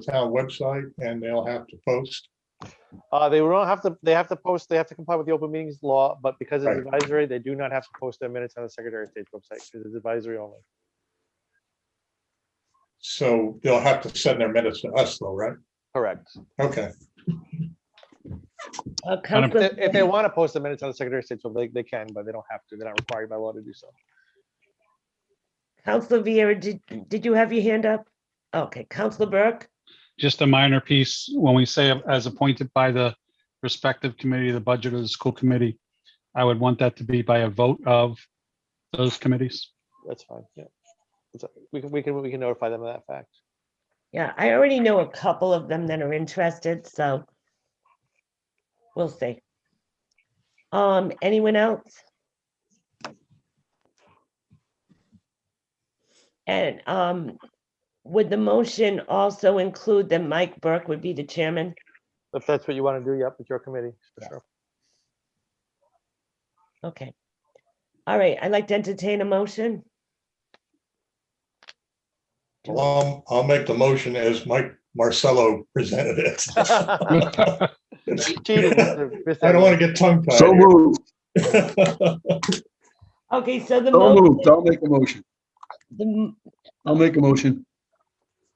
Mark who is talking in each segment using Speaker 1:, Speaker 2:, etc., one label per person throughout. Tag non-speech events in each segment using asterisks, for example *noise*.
Speaker 1: town website and they'll have to post.
Speaker 2: Uh, they don't have to, they have to post, they have to comply with the open meetings law, but because it's advisory, they do not have to post their minutes on the Secretary of State's website, because it's advisory only.
Speaker 1: So they'll have to send their minutes to us though, right?
Speaker 2: Correct.
Speaker 1: Okay,
Speaker 3: Uh,
Speaker 2: If
Speaker 3: Council,
Speaker 2: they- if they want to post the minutes on the Secretary of State's website, they can, but they don't have to. They're not required by law to do so.
Speaker 3: Council Viera, did, did you have your hand up? Okay, Council Burke,
Speaker 4: just a minor piece, when we say as appointed by the respective committee, the budget of the school committee, I would want that to be by a vote of those committees.
Speaker 2: That's fine, yeah. It's- We can, we can, we can notify them of that fact.
Speaker 3: yeah, I already know a couple of them that are interested, so we'll see. Um, anyone else? And, um, would the motion also include that Mike Burke would be the chairman?
Speaker 2: If that's what you want to do, yep, it's your committee, for
Speaker 1: *laughs*
Speaker 2: sure. *laughs*
Speaker 3: Okay. All right, I'd like to entertain a motion.
Speaker 1: um, I'll make the motion as Mike Marcello presented it.
Speaker 2: Cheated,
Speaker 1: I
Speaker 2: Mr. Mr.
Speaker 1: don't want to get tongue tied.
Speaker 5: So moved,
Speaker 3: Okay, so the,
Speaker 5: so
Speaker 3: mo-
Speaker 5: moved. I'll make a motion.
Speaker 3: the m-
Speaker 5: I'll make a motion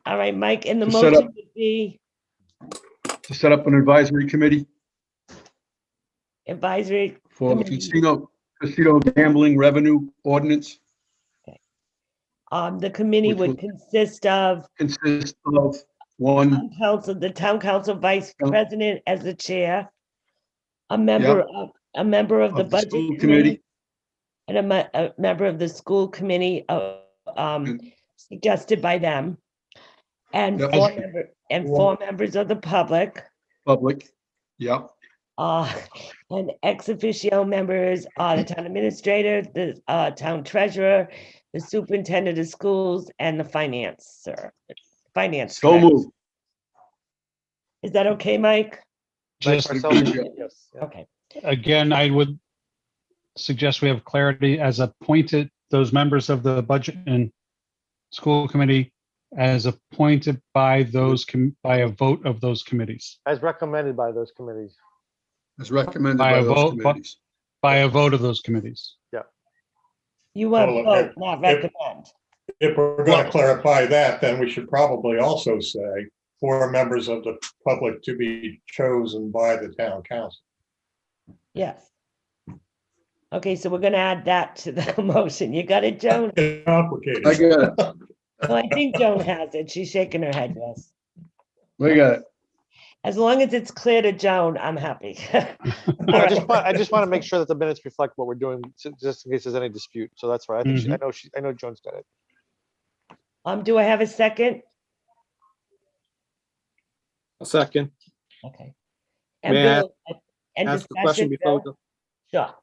Speaker 3: all right, Mike, and the
Speaker 5: To set
Speaker 3: motion
Speaker 5: up-
Speaker 3: would be
Speaker 5: to set up an advisory committee
Speaker 3: advisory
Speaker 5: for the
Speaker 3: Committee.
Speaker 5: casino, casino gambling revenue ordinance
Speaker 3: Um, the committee
Speaker 5: Which
Speaker 3: would
Speaker 5: would-
Speaker 3: consist of
Speaker 5: consists of one,
Speaker 3: town council, the town council vice
Speaker 5: Town-
Speaker 3: president as the chair, a member of, a member of the
Speaker 5: of the school
Speaker 3: budget
Speaker 5: committee
Speaker 3: committee, and a, me- a member of the school committee, uh, um, suggested by them, and
Speaker 5: Yep.
Speaker 3: four, member- and four members of the public,
Speaker 5: public. Yep,
Speaker 3: uh, *laughs* and ex officio members, uh, the town administrator, the, uh, town treasurer, the superintendent of schools, and the financer, finance.
Speaker 5: so
Speaker 3: director.
Speaker 5: moved.
Speaker 3: Is that okay, Mike?
Speaker 4: Just,
Speaker 2: Marcelo,
Speaker 5: Yeah.
Speaker 2: yes, yeah.
Speaker 3: Okay,
Speaker 4: again, I would suggest we have clarity as appointed, those members of the budget and school committee as appointed by those, com- by a vote of those committees,
Speaker 2: As recommended by those committees.
Speaker 5: As recommended
Speaker 4: By
Speaker 5: by
Speaker 4: a
Speaker 5: those
Speaker 4: vote, but-
Speaker 5: committees.
Speaker 4: by a vote of those committees.
Speaker 3: you want to
Speaker 1: Well,
Speaker 3: vote,
Speaker 1: if-
Speaker 3: not
Speaker 1: if-
Speaker 3: recommend.
Speaker 1: *laughs* If we're going to clarify that, then we should probably also say four members of the public to be chosen by the town council.
Speaker 3: Yes. Okay, so we're gonna add that to the *laughs* motion. You got it, Joan?
Speaker 6: *laughs*
Speaker 1: It's
Speaker 5: I
Speaker 1: complicated.
Speaker 5: got it,
Speaker 3: Well, I think Joan has it. She's shaking her head, yes.
Speaker 5: I got it.
Speaker 3: As long as it's clear to Joan, I'm happy. *laughs* All
Speaker 2: I
Speaker 3: right.
Speaker 2: just want, I just want to make sure that the minutes reflect what we're doing, s- just in case there's any dispute. So that's right. I think, she- I know she, I know Joan's got it.
Speaker 3: Um, do I have a second?
Speaker 6: A second.
Speaker 3: Okay. And
Speaker 6: May I
Speaker 3: Bill, and
Speaker 6: Ask a
Speaker 3: discussion,
Speaker 6: question before, we
Speaker 3: Bill?
Speaker 6: go.
Speaker 3: uh, Sure.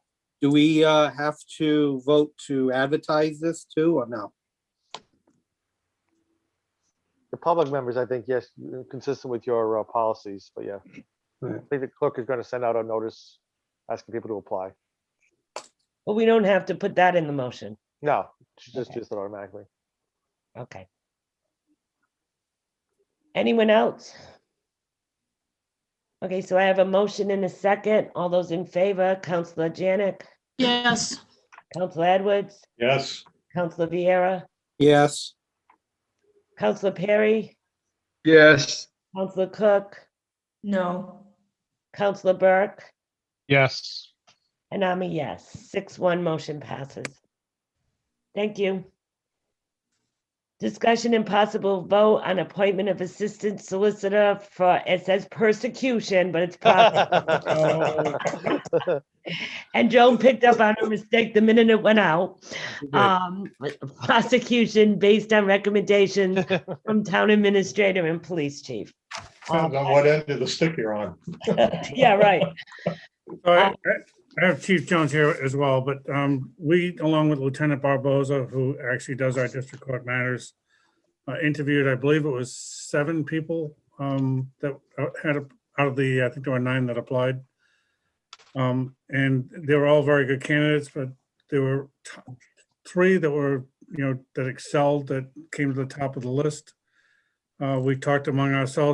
Speaker 6: do we uh, have to vote to advertise this too or no?
Speaker 2: The public members, I think, yes, consistent with your uh, policies, but yeah. I
Speaker 6: Right.
Speaker 2: think the clerk is going to send out a notice asking people to apply.
Speaker 3: Well, we don't have to put that in the motion.
Speaker 2: No, she just
Speaker 3: Okay.
Speaker 2: does it automatically.
Speaker 3: Okay. Anyone else? Okay, so I have a motion and a second. All those in favor, Counselor Janik,
Speaker 7: Yes,
Speaker 3: Counselor Edwards,
Speaker 1: *laughs* Yes,
Speaker 3: Counselor Vieira,
Speaker 6: Yes,
Speaker 3: Counselor Perry,
Speaker 5: Yes,
Speaker 3: Counselor Cook,
Speaker 7: no,
Speaker 3: Counselor Burke,
Speaker 4: Yes.
Speaker 3: and I'm a yes. Six one, motion passes. Thank you. Discussion and possible vote on appointment of assistant solicitor for, it says persecution, but it's
Speaker 2: *laughs*
Speaker 3: prosecution. And Joan picked up on her mistake the minute it went out. Um, prosecution based on recommendations from town administrator and police chief. *laughs*
Speaker 1: depends on what end of the stick you're on.
Speaker 3: Yeah, right.
Speaker 8: So I
Speaker 3: Uh,
Speaker 8: I have Chief Jones here as well, but um, we, along with Lieutenant Barboza, who actually does our district court matters, uh, interviewed, I believe it was seven people um, that uh, had, a- out of the, I think there were nine that applied. Um, And they were all very good candidates, but there were t- three that were, you know, that excelled, that came to the top of the list. Um, Uh, We talked among ourselves